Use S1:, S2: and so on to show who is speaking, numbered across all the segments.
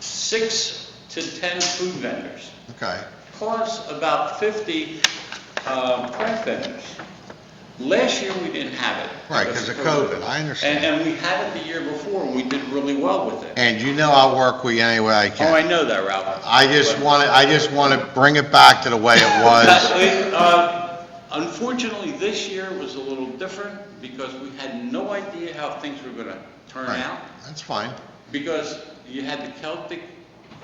S1: six to 10 food vendors,
S2: Okay,
S1: plus about 50 uh, craft vendors. Last year, we didn't have it.
S2: right, because of COVID, I
S1: And,
S2: understand.
S1: and we had it the year before, and we did really well with it.
S2: And you know I'll work with you any way I
S1: Oh, I
S2: can.
S1: know that, Ralph.
S2: I just
S1: But-
S2: want to, I just want to bring it back to the way it was.
S1: But, uh, Unfortunately, this year was a little different because we had no idea how things were gonna turn
S2: Right,
S1: out.
S2: That's fine,
S1: Because you had the Celtic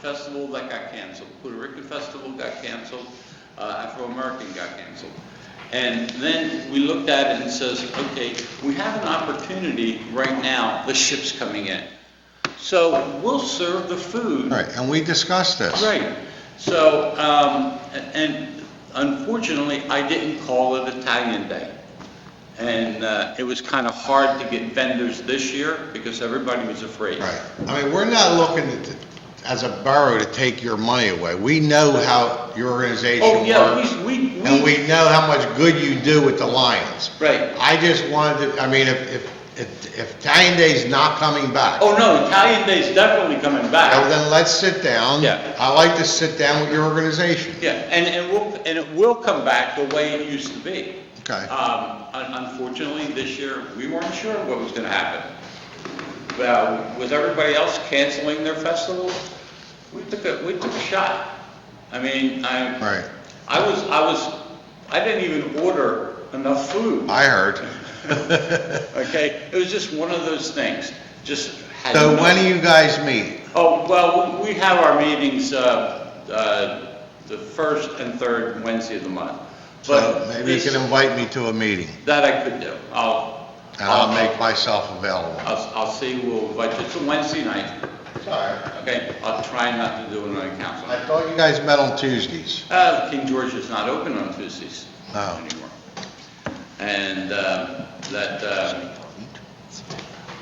S1: Festival that got canceled, Puerto Rican Festival got canceled, uh, Afro-American got canceled. And then we looked at it and says, okay, we have an opportunity right now, the ship's coming in. So we'll serve the food.
S2: right, and we discussed this.
S1: Right, so, um, and unfortunately, I didn't call it Italian Day. And, uh, it was kind of hard to get vendors this year because everybody was afraid.
S2: Right, I mean, we're not looking to- as a borough to take your money away. We know how your
S1: Oh,
S2: organization
S1: yeah,
S2: works,
S1: we, we.
S2: and we know how much good you do with the Lions.
S1: Right.
S2: I just wanted to, I mean, if, if, if if Italian Day's not coming back,
S1: Oh, no, Italian Day's definitely coming
S2: well,
S1: back.
S2: then let's sit down.
S1: Yeah.
S2: I like to sit down with your organization.
S1: Yeah, and, and we'll, and it will come back the way it used to be.
S2: Okay.
S1: Um, un- unfortunately, this year, we weren't sure what was gonna happen. Well, with everybody else canceling their festivals, we took a, we took a shot. I mean, I,
S2: Right,
S1: I was, I was, I didn't even order enough food,
S2: I heard.
S1: okay? It was just one of those things, just had
S2: So
S1: no-
S2: when do you guys meet?
S1: Oh, well, we have our meetings, uh, uh, the first and third Wednesday of the month.
S2: So
S1: But
S2: maybe you
S1: this-
S2: can invite me to a meeting,
S1: That I could do. I'll.
S2: and I'll make
S1: Uh,
S2: myself available.
S1: I'll, I'll see, we'll invite you. It's a Wednesday night,
S2: Sorry,
S1: okay? I'll try not to do it on council.
S2: I thought you guys met on Tuesdays.
S1: Uh, King George is not open on Tuesdays
S2: No.
S1: anymore. And, uh, that, uh,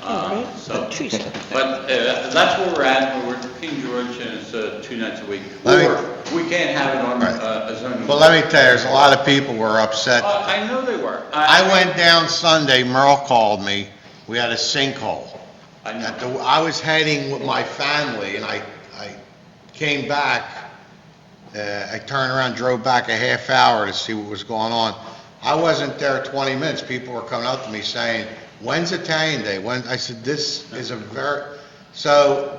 S1: uh, so.
S3: Tuesday.
S1: But, uh, that's where we're at. We're at King George and it's, uh, two nights a week.
S2: Let me-
S1: Or, we can't have it on,
S2: Right.
S1: uh, a zoning.
S2: But let me tell you, there's a lot of people were upset.
S1: Uh, I know they were.
S2: I went down Sunday, Merle called me, we had a sinkhole.
S1: I
S2: At
S1: know.
S2: the- I was heading with my family, and I, I came back, uh, I turned around, drove back a half hour to see what was going on. I wasn't there 20 minutes, people were coming up to me saying, "When's Italian Day?" When, I said, "This is a very," so,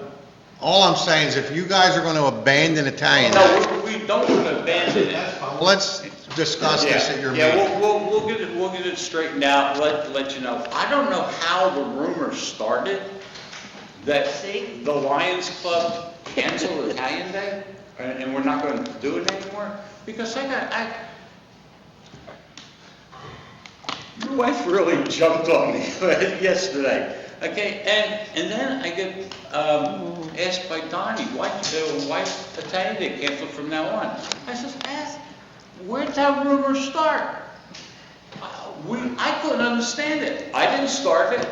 S2: all I'm saying is if you guys are going to abandon Italian Day,
S1: No, we we don't want to abandon it.
S2: let's discuss this at your
S1: Yeah,
S2: meeting.
S1: Yeah, we'll, we'll, we'll get it, we'll get it straightened out, let, let you know. I don't know how the rumor started that the Lions Club canceled Italian Day, and, and we're not gonna do it anymore, because I got, I, your wife really jumped on me yesterday, okay? And, and then I get um, asked by Donnie, why, uh, why Italian Day canceled from now on? I says, ask, where'd that rumor start? Uh, We, I couldn't understand it. I didn't start it.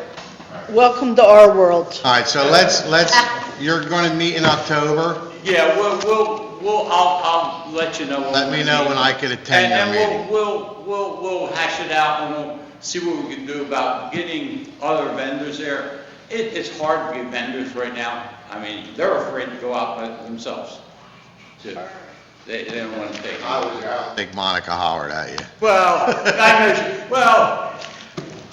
S3: Welcome to our world.
S2: All right, so let's, let's, you're going to meet in October?
S1: Yeah, we'll, we'll, we'll, I'll, I'll let you know. when
S2: Let
S1: we
S2: me know
S1: meet.
S2: when I could attend your
S1: And-
S2: meeting.
S1: And we'll, we'll, we'll, we'll hash it out and we'll see what we can do about getting other vendors there. It, it's hard to get vendors right now. I mean, they're afraid to go out by themselves. too. They, they don't want to take.
S2: was out. I think Monica hollered at you.
S1: Well, I know, she- well,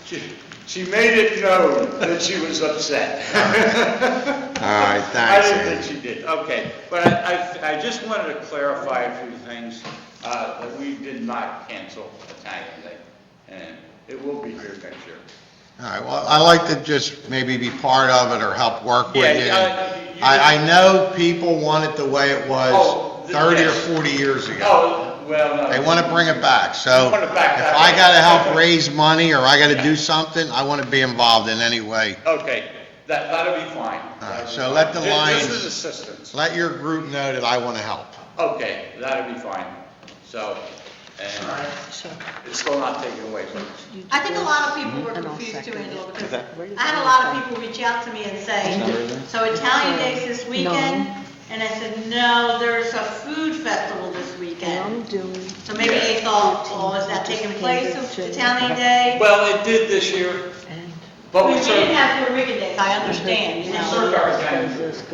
S1: she, she made it known that she was upset.
S2: All right,
S1: I
S2: thanks,
S1: didn't
S2: Andy.
S1: think she did, okay. But I, I, I just wanted to clarify a few things, uh, that we did not cancel Italian Day, and it will be here next year.
S2: All right, well, I like to just maybe be part of it or help work with
S1: Yeah,
S2: you.
S1: I- you-
S2: I, I know people want it the way it
S1: Oh,
S2: was
S1: th-
S2: 30 or
S1: yes.
S2: 40 years ago.
S1: Oh, well, no.
S2: They want to bring it back, so if
S1: They want it back, that-
S2: I got to help raise money or I got to do something, I want to be involved in any way.
S1: Okay, that, that'll be fine.
S2: All right, so let the
S1: This-
S2: Lions-
S1: This is assistance.
S2: Let your group know that I want to help.
S1: Okay, that'll be fine, so, and it's still not taken away from us.
S4: I think a lot of people were
S3: And I'll
S4: confused too,
S3: second
S4: Angela,
S3: it.
S4: because
S3: Where did
S4: I had
S3: that
S4: a lot of people reach out to me and say, so Italian Day's this weekend? And I said, no, there's a food festival this
S3: I'm
S4: weekend.
S3: doing,
S4: So maybe they thought, oh, is that taking place of Italian Day?
S1: Well, it did this year,
S3: and
S1: but
S4: We
S1: we
S4: didn't
S1: served,
S4: have Puerto Rican Days, I understand, you
S1: we
S4: know.
S1: served our vendors.